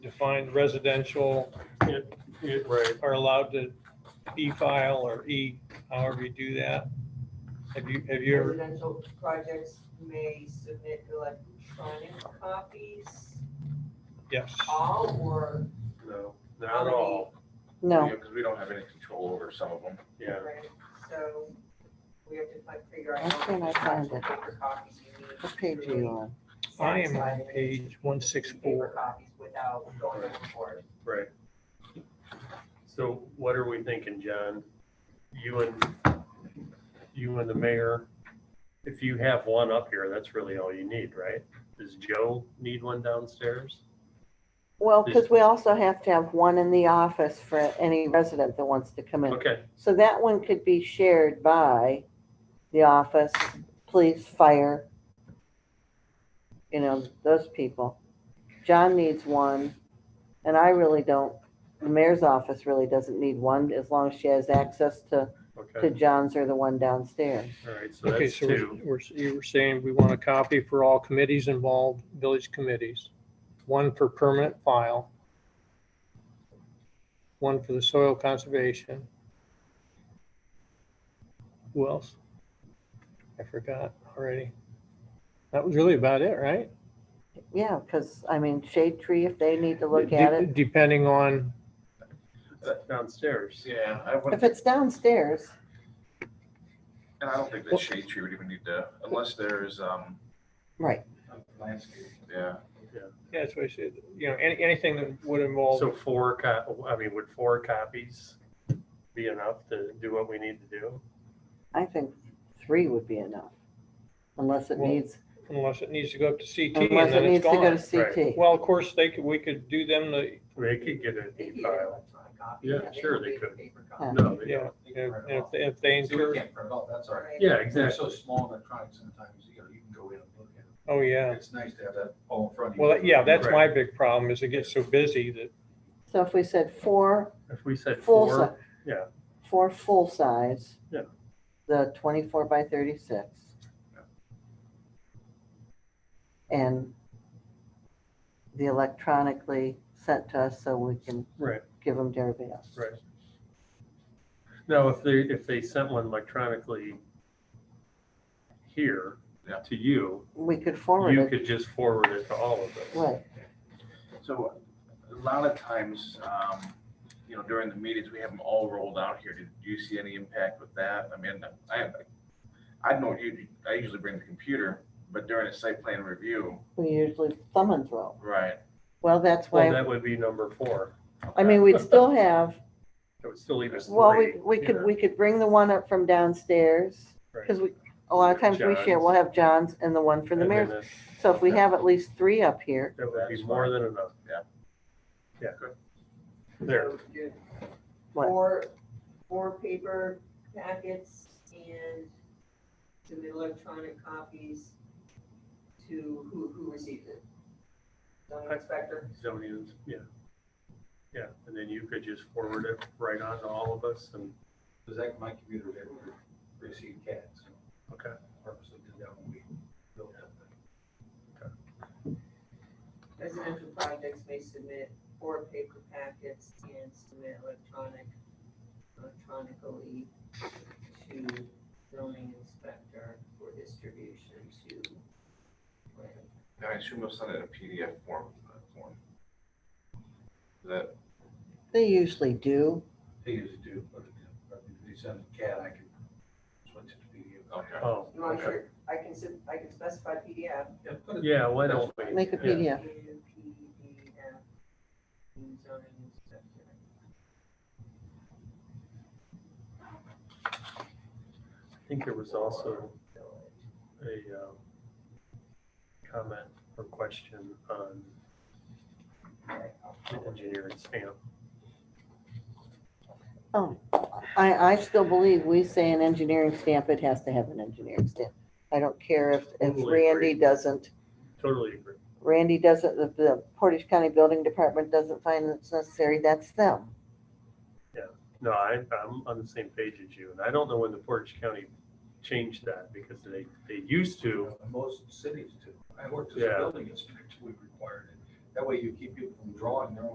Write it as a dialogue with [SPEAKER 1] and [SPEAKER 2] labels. [SPEAKER 1] defined residential
[SPEAKER 2] It, it, right,
[SPEAKER 1] are allowed to e-file or e, however you do that? Have you, have you ever,
[SPEAKER 3] Residential projects may submit electronic copies,
[SPEAKER 1] yes,
[SPEAKER 3] all or.
[SPEAKER 2] no, not at all,
[SPEAKER 4] No,
[SPEAKER 5] Because we don't have any control over some of them.
[SPEAKER 2] yeah.
[SPEAKER 3] right? So we have to like figure out.
[SPEAKER 4] Why can't I
[SPEAKER 3] how many
[SPEAKER 4] find it?
[SPEAKER 3] paper copies you need
[SPEAKER 4] what page
[SPEAKER 3] to
[SPEAKER 4] are you
[SPEAKER 3] really
[SPEAKER 4] on?
[SPEAKER 1] I am
[SPEAKER 3] satisfy
[SPEAKER 1] on
[SPEAKER 3] the need
[SPEAKER 1] page one
[SPEAKER 3] for
[SPEAKER 1] six
[SPEAKER 3] Paper
[SPEAKER 1] four.
[SPEAKER 3] copies without going overboard.
[SPEAKER 2] Right. So what are we thinking, John? You and, you and the mayor, if you have one up here, that's really all you need, right? Does Joe need one downstairs?
[SPEAKER 4] Well, because we also have to have one in the office for any resident that wants to come in.
[SPEAKER 2] Okay,
[SPEAKER 4] So that one could be shared by the office, police, fire. You know, those people. John needs one, and I really don't, the mayor's office really doesn't need one as long as she has access to, to
[SPEAKER 2] okay,
[SPEAKER 4] John's or the one downstairs.
[SPEAKER 2] all right, so
[SPEAKER 1] Okay,
[SPEAKER 2] that's
[SPEAKER 1] so we're-
[SPEAKER 2] two.
[SPEAKER 1] we're, you were saying we want a copy for all committees involved, village committees. One for permanent file. One for the soil conservation. Who else? I forgot already. That was really about it, right?
[SPEAKER 4] Yeah, because, I mean, shade tree, if they need to look at
[SPEAKER 1] De-
[SPEAKER 4] it.
[SPEAKER 1] Depending on,
[SPEAKER 2] Downstairs.
[SPEAKER 5] Yeah, I
[SPEAKER 4] If
[SPEAKER 5] wouldn't,
[SPEAKER 4] it's downstairs,
[SPEAKER 5] and I don't think that shade tree would even need to, unless there's, um,
[SPEAKER 4] right,
[SPEAKER 5] landscape. Yeah,
[SPEAKER 1] yeah, that's what I said, you know, any, anything that would involve,
[SPEAKER 2] So four co, I mean, would four copies be enough to do what we need to do?
[SPEAKER 4] I think three would be enough. Unless it
[SPEAKER 1] Well,
[SPEAKER 4] needs,
[SPEAKER 1] unless it needs to go up to CT and
[SPEAKER 4] unless it
[SPEAKER 1] then it's
[SPEAKER 4] needs to go
[SPEAKER 1] gone.
[SPEAKER 2] Right.
[SPEAKER 4] to CT.
[SPEAKER 1] Well, of course, they could, we could do them the,
[SPEAKER 2] They could get an
[SPEAKER 3] They need an
[SPEAKER 2] e-file.
[SPEAKER 3] electronic copy.
[SPEAKER 2] Yeah,
[SPEAKER 3] don't
[SPEAKER 2] sure they
[SPEAKER 3] need a
[SPEAKER 2] could.
[SPEAKER 3] paper copy.
[SPEAKER 4] Yeah.
[SPEAKER 2] No, they
[SPEAKER 1] yeah,
[SPEAKER 2] don't.
[SPEAKER 1] if, if- if they incur,
[SPEAKER 6] can't print out, that's all right.
[SPEAKER 2] Yeah,
[SPEAKER 6] They're so
[SPEAKER 2] exactly.
[SPEAKER 6] small and electronic sometimes, you know, you can go in and look at them.
[SPEAKER 1] oh, yeah.
[SPEAKER 6] It's nice to have that all in front of you.
[SPEAKER 1] Well, yeah, that's my big problem is it gets so busy that,
[SPEAKER 4] So if we said four,
[SPEAKER 2] If we said
[SPEAKER 4] full,
[SPEAKER 2] four.
[SPEAKER 4] si-
[SPEAKER 2] yeah.
[SPEAKER 4] four full size.
[SPEAKER 2] Yeah.
[SPEAKER 4] The twenty-four by thirty-six. And the electronically sent to us so we can
[SPEAKER 2] Right.
[SPEAKER 4] give them to everybody else.
[SPEAKER 2] Right. No, if they, if they sent one electronically here
[SPEAKER 5] Yeah.
[SPEAKER 2] to you,
[SPEAKER 4] We could
[SPEAKER 2] you
[SPEAKER 4] forward it,
[SPEAKER 2] could just forward it to all of us.
[SPEAKER 4] right,
[SPEAKER 5] so a lot of times, um, you know, during the meetings, we have them all rolled out here. Did you see any impact with that? I mean, I, I know you, I usually bring the computer, but during a site plan review,
[SPEAKER 4] we usually thumb and throw.
[SPEAKER 5] right?
[SPEAKER 4] Well, that's
[SPEAKER 2] Well,
[SPEAKER 4] why,
[SPEAKER 2] that would be number four.
[SPEAKER 4] I mean, we'd still have,
[SPEAKER 2] That would still leave us
[SPEAKER 4] well, we,
[SPEAKER 2] three.
[SPEAKER 4] we could,
[SPEAKER 2] Yeah.
[SPEAKER 4] we could bring the one up from downstairs.
[SPEAKER 2] Right.
[SPEAKER 4] Cause we, a lot of times we share, we'll have John's and the one from the
[SPEAKER 2] And then
[SPEAKER 4] mayor's
[SPEAKER 2] that-
[SPEAKER 4] So if we have at least three up here,
[SPEAKER 2] That would be
[SPEAKER 5] That's
[SPEAKER 2] more
[SPEAKER 5] fine.
[SPEAKER 2] than enough.
[SPEAKER 5] Yeah.
[SPEAKER 2] Yeah.
[SPEAKER 5] Good.
[SPEAKER 2] There,
[SPEAKER 3] So do
[SPEAKER 4] What?
[SPEAKER 3] Four, four paper packets and submit electronic copies to who, who received it? Zoning inspector?
[SPEAKER 2] zoning, is- yeah. Yeah, and then you could just forward it right on to all of us and,
[SPEAKER 6] Because that, my computer would ever receive cats.
[SPEAKER 2] okay.
[SPEAKER 6] Purposely did that when we built that thing.
[SPEAKER 3] Residential projects may submit four paper packets and submit electronic, electronically to zoning inspector for distribution to.
[SPEAKER 5] Now, I assume they'll send it in a PDF form, uh, form. Is that
[SPEAKER 4] they usually do.
[SPEAKER 6] They usually do, but you know, if they send a cat, I can switch it to PDF.
[SPEAKER 5] Okay.
[SPEAKER 2] Oh,
[SPEAKER 3] You want
[SPEAKER 2] okay.
[SPEAKER 3] your, I can, sub- I can specify PDF
[SPEAKER 6] Yeah, put it-
[SPEAKER 2] Yeah, why don't we?
[SPEAKER 4] Make a
[SPEAKER 2] yeah.
[SPEAKER 4] PDF.
[SPEAKER 3] and PDF in zoning inspector.
[SPEAKER 2] I think there was also
[SPEAKER 3] village.
[SPEAKER 2] a um, comment or question on the engineering stamp.
[SPEAKER 4] Oh, I, I still believe we say an engineering stamp, it has to have an engineering stamp. I don't care if, if
[SPEAKER 2] Totally agree.
[SPEAKER 4] Randy doesn't,
[SPEAKER 2] Totally agree.
[SPEAKER 4] Randy doesn't, if the Portage County Building Department doesn't find it's necessary, that's them.
[SPEAKER 2] No, I, I'm on the same page as you, and I don't know when the Portage County changed that, because they, they used to,
[SPEAKER 6] Most cities do. I worked as a
[SPEAKER 2] Yeah.
[SPEAKER 6] building inspector, we required it. That way you keep people from drawing their own